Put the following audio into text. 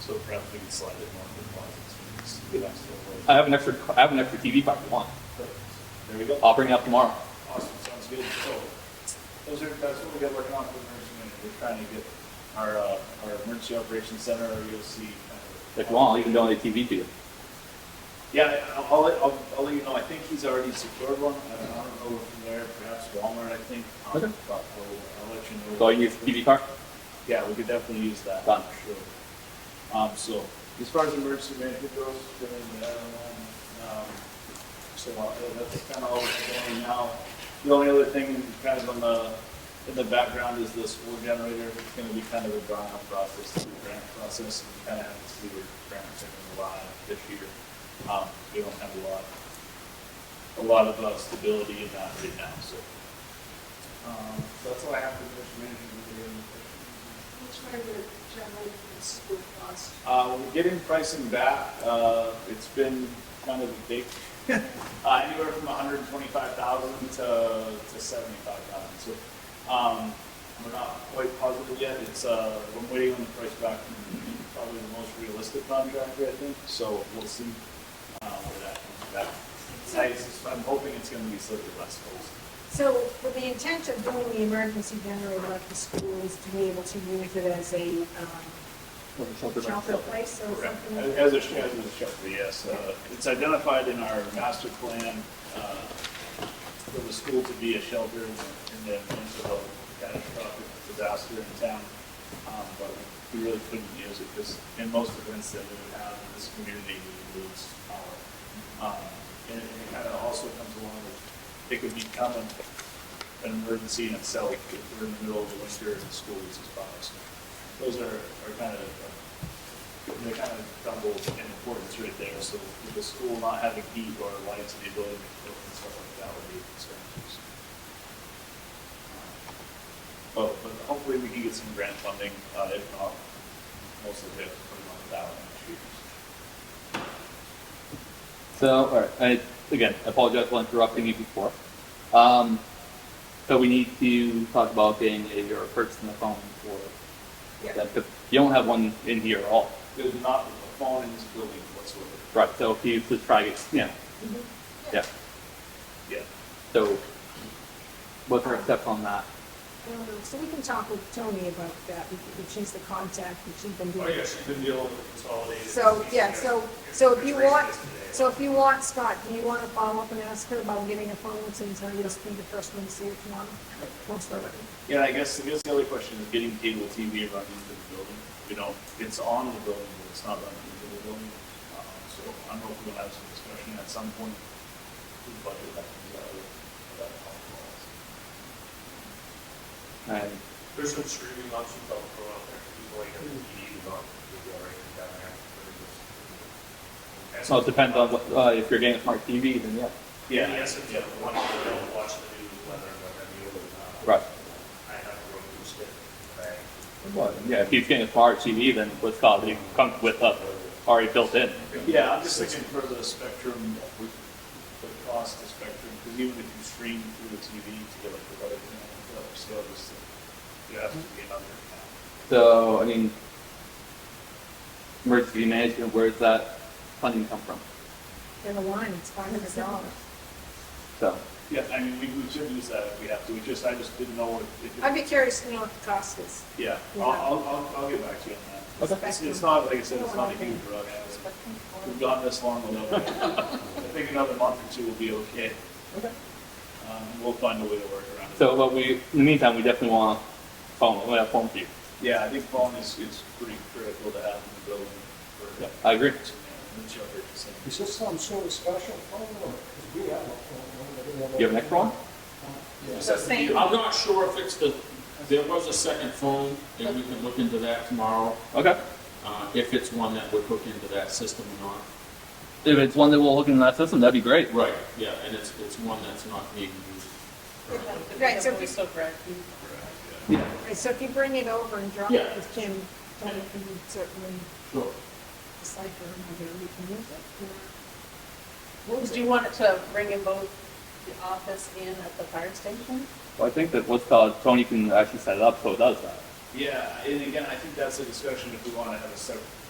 So perhaps we can slide it more in the closet. so it's nice little way. I have an extra, I have an extra TV if I want. Perfect. There we go. I'll bring it up tomorrow. Awesome, sounds good. So, those are, that's what we got working on for emergency management. We're trying to get our, uh, our emergency operations center, our EOC. kind of- If you want, I'll even donate a TV to you. Yeah, I'll, I'll, let- I'll, I'll let you know. I think he's already secured one. I don't, I don't know from there, perhaps Walmart, I think. Um, Okay. But we'll, I'll let you know. So you use a TV card? Yeah, we could definitely use that. Done. for Sure. Um, so, as far as emergency management goes, then, um, um, so uh, that's kind of all we're doing now. The only other thing kind of on the, in the background is the school generator. It's going to be kind of a drawn out process, through the grant process. We kind of have to see where grants are going to lie this year. Um, we don't have a lot, a lot of uh, stability in that right now, so. Um, so that's all I have for emergency management. Do you have any questions? Which way would it generally be school cost? Uh, we're getting pricing back. Uh, it's been kind of a big, uh, anywhere from 125,000 to, to 75,000. So um, we're not quite positive yet. It's uh, we're waiting on the price back from probably the most realistic contractor, I think. So we'll see uh, where that comes back. I, I'm hoping it's going to be slightly less costly. So with the intent of doing the emergency generator at the school is to be able to use it as a um, shelter place or Correct. something? like As a, sh- as a shelter, yes. Uh, It's identified in our master plan uh, for the school to be a shelter in the event of a catastrophic disaster in town. Um, But we really couldn't use it because in most events that we would have in this community, we would lose power. Um, And it kind of also comes along with, it could become an an emergency in itself if we're in the middle of the winter and the school loses power. So Those are are kind of uh, they kind of double in importance right there, so with the school not having heat or lights and the ability to cook and stuff like that would be a concern. so. But, but hopefully we can get some grant funding, uh, if not, most of it, pretty much that one next year. So, all right, I, again, I apologize for interrupting you before. Um, so we need to talk about getting a, or purchasing a phone for Yeah. that, because you don't have one in here at all. There's not a phone in this building whatsoever. Right, so if you just try it, yeah, Mhm. yeah, Yeah. so what's our step on that? Um, So we can talk with Tony about that, because she's the contact, and she's been Oh, doing. yeah, she's been dealing with consolidated. So, yeah, so, so if you Raised want, this today. so if you want, Scott, do you want to follow up and ask her about getting a phone since I just be the first one to see if you want? Most of it. Yeah, I guess, I guess the other question is getting cable TV run into the building. You know, it's on the building, but it's not running into the building. Uh, So I'm hoping we'll have some discussion at some point. with budget that comes out of that conference. And There's some streaming options that will go out there, people like have DVDs on, video right down there. They're just- so it depends on what, uh, if you're getting a smart TV, then yeah. Yeah, Yeah, yes, if you have one, you don't watch the news, whether, whether you, uh. Right. I have a Roku stick, right? Yeah, if he's getting a smart TV, then what's called, it comes with us, already built in. Yeah, I'm just thinking for the spectrum, with the cost of spectrum, because even if you stream through the TV to get like the other, the other service, you have to be another account. So, I mean, emergency management, where's that funding come from? In a line, it's five hundred dollars. So, Yeah, I mean, we, we should use that if we have to. We just, I just didn't know if. if it- I'd be curious to know what the cost is. Yeah, I'll, I'll, I'll, I'll get back to you on that. Okay. It's- It's not, like I said, it's not a huge rush. We've gone this long without, it. I think another month or two will be okay. Okay. Um, we'll find a way to work around it. so, but we, in the meantime, we definitely want a phone, we have a phone for you. Yeah, I think phone is, is pretty critical to have in the building for. Yeah, I agree. And the children to send. Is this some sort of special phone or, because we have a phone number. You have an extra one? Just Yes. has to be- I'm not sure if it's the, there was a second phone, and we can look into that tomorrow, Okay. uh, if it's one that would hook into that system or not. If it's one that will hook in that system, that'd be great. Right, yeah, and it's, it's one that's not being used. Right, so if you, Yeah. right, so if you bring it over and drop it Yeah. with Kim, then we can certainly Sure. decipher whether we can use Do it. you want it to bring in both the office and at the fire station? Well, I think that what's called, Tony can actually set it up so it does that. Yeah, and again, I think that's a discussion if we want to have a separate